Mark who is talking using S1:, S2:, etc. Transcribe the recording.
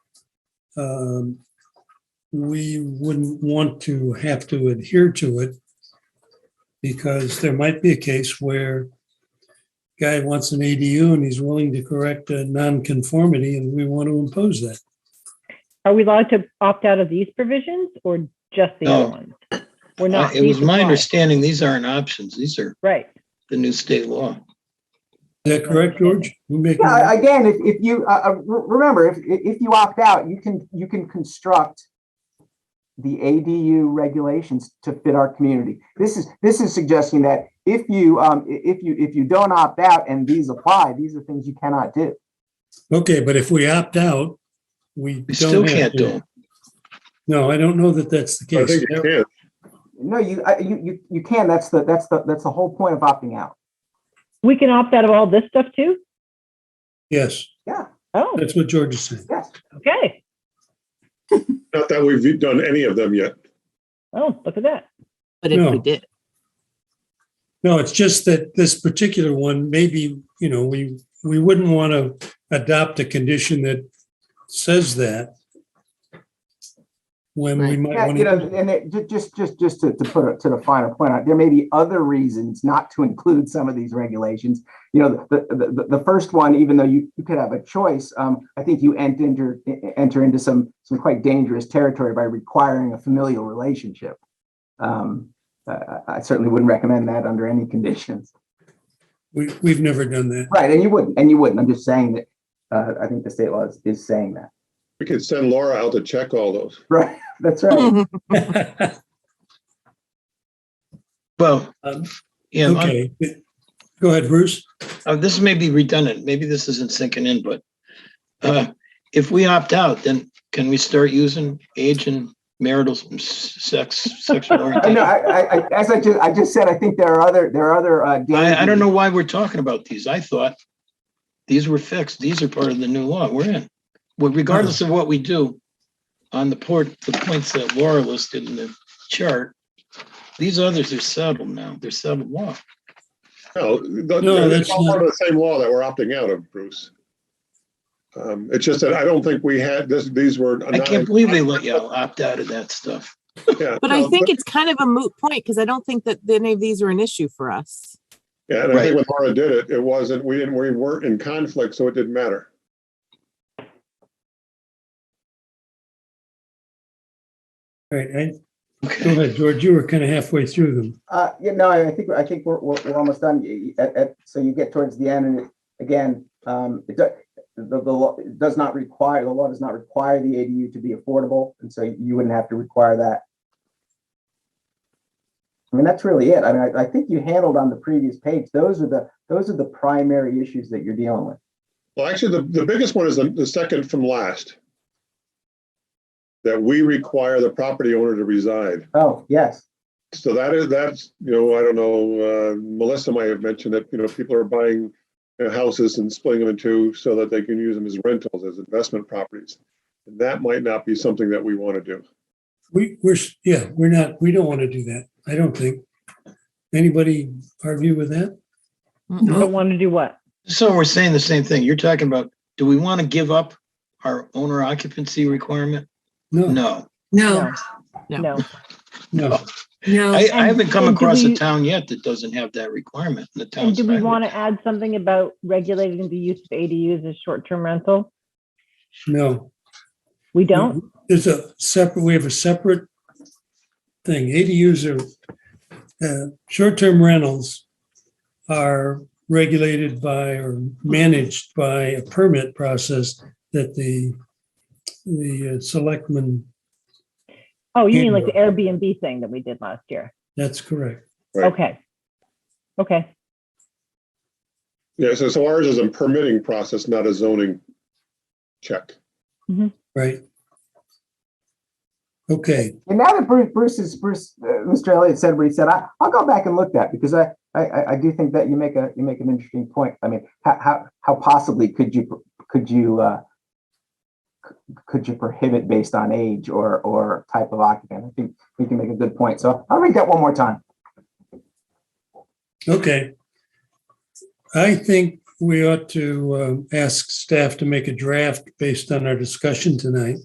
S1: um, we wouldn't want to have to adhere to it because there might be a case where guy wants an ADU and he's willing to correct a nonconformity and we want to impose that.
S2: Are we allowed to opt out of these provisions or just the
S3: No.
S2: other ones? We're
S3: Uh,
S2: not.
S3: It
S2: these
S3: was my
S2: apply.
S3: understanding, these aren't options. These are
S2: Right.
S3: the new state law.
S1: Is that correct, George? We make-
S4: Yeah, again, if, if you, uh, uh, re- remember, if, if you opt out, you can, you can construct the ADU regulations to fit our community. This is, this is suggesting that if you, um, i- if you, if you don't opt out and these apply, these are things you cannot do.
S1: Okay, but if we opt out, we
S3: We still
S1: don't have
S3: can't do
S1: to.
S3: them.
S1: No, I don't know that that's the
S5: I
S1: case.
S5: think you can.
S4: No, you, uh, you, you, you can, that's the, that's the, that's the whole point of opting out.
S2: We can opt out of all this stuff too?
S1: Yes,
S2: Oh,
S1: that's what George is saying.
S4: Yes.
S2: okay.
S5: Not that we've done any of them yet.
S2: Oh, look at that.
S6: But if
S1: No.
S6: we did,
S1: No, it's just that this particular one, maybe, you know, we, we wouldn't want to adopt a condition that says that. When we
S6: Right.
S1: might
S4: Yeah,
S1: want
S4: you know,
S1: to,
S4: and it, ju- just, just, just to, to put it to the final point, out, there may be other reasons not to include some of these regulations. You know, the, the, the, the first one, even though you, you could have a choice, um, I think you ent- enter, e, enter into some, some quite dangerous territory by requiring a familial relationship. Um, I, I- I certainly wouldn't recommend that under any conditions.
S1: we, we've never done that.
S4: Right, and you wouldn't, and you wouldn't. I'm just saying that, uh, I think the state law is, is saying that.
S5: We could send Laura out to check all those.
S4: Right, that's right.
S3: Well,
S1: Um,
S3: yeah, I'm-
S1: Okay, go ahead, Bruce.
S3: uh, this may be redundant. Maybe this isn't sinking in, but uh, if we opt out, then can we start using age and marital s- sex, sexual
S4: I know,
S3: orientation?
S4: I, I, I- as I just, I just said, I think there are other, there are other, uh.
S3: I, I
S4: dangers.
S3: don't know why we're talking about these. I thought these were fixed. These are part of the new law we're in. Well, regardless of what we do on the port, the points that Laura listed in the chart, these others are settled now. They're settled law.
S5: No, th-
S1: No,
S5: it's
S1: that's
S5: all
S1: not-
S5: part of the same law that we're opting out of, Bruce. Um, It's just that I don't think we had, this, these were.
S3: I can't believe they let you opt out of that stuff.
S6: but I think it's kind of a moot point because I don't think that any of these are an issue for us.
S5: Yeah, and I
S3: Right.
S5: think when Laura did it, it wasn't, we didn't, we weren't in conflict, so it didn't matter.
S1: All right, and go
S3: Okay.
S1: ahead, George, you were kind of halfway through them.
S4: Uh, you know, I think, I think we're, we're, we're almost done. Y- y- at- at- so you get towards the end and it- again, um, it does, the, the law it does not require, the law does not require the ADU to be affordable. And so you wouldn't have to require that. I mean, that's really it. I mean, I, I think you handled on the previous page. Those are the, those are the primary issues that you're dealing with.
S5: Well, actually, the, the biggest one is the, the second from last. That we require the property owner to reside.
S4: Oh, yes.
S5: So that is, that's, you know, I don't know, uh, Melissa might have mentioned that, you know, people are buying you know, houses and splitting them in two so that they can use them as rentals, as investment properties. And That might not be something that we want to do.
S1: We, we're, s- yeah, we're not, we don't want to do that, I don't think. Anybody argue with that?
S6: Mm-mm.
S2: Don't want to do what?
S3: So we're saying the same thing. You're talking about, do we want to give up our owner occupancy requirement?
S1: No,
S3: No.
S7: No,
S6: No.
S2: No.
S1: no.
S7: no.
S3: I, I haven't come
S2: And- and do
S3: across a
S2: we-
S3: town yet that doesn't have that requirement in the town.
S2: And do we want to add something about regulating the use of ADUs as short-term rental?
S1: No.
S2: We
S1: Mm-hmm.
S2: don't?
S1: There's a separate, we have a separate thing. ADUs are, uh, short-term rentals are regulated by or managed by a permit process that the, the uh, selectmen,
S2: Oh, you mean like the Airbnb thing that we did last year?
S1: that's correct.
S5: Right.
S2: Okay. Okay.
S5: Yeah, so, so ours is a permitting process, not a zoning check.
S1: Right. Okay,
S4: And now that Bruce, Bruce is, Bruce, uh, Mr. Elliott said what he said, I, I'll go back and look that because I, I- I, I do think that you make a, you make an interesting point. I mean, how, how, how possibly could you, could you, uh, c- could you prohibit based on age or, or type of occupant? I think we can make a good point. So I'll read that one more time.
S1: okay. I think we ought to um, ask staff to make a draft based on our discussion tonight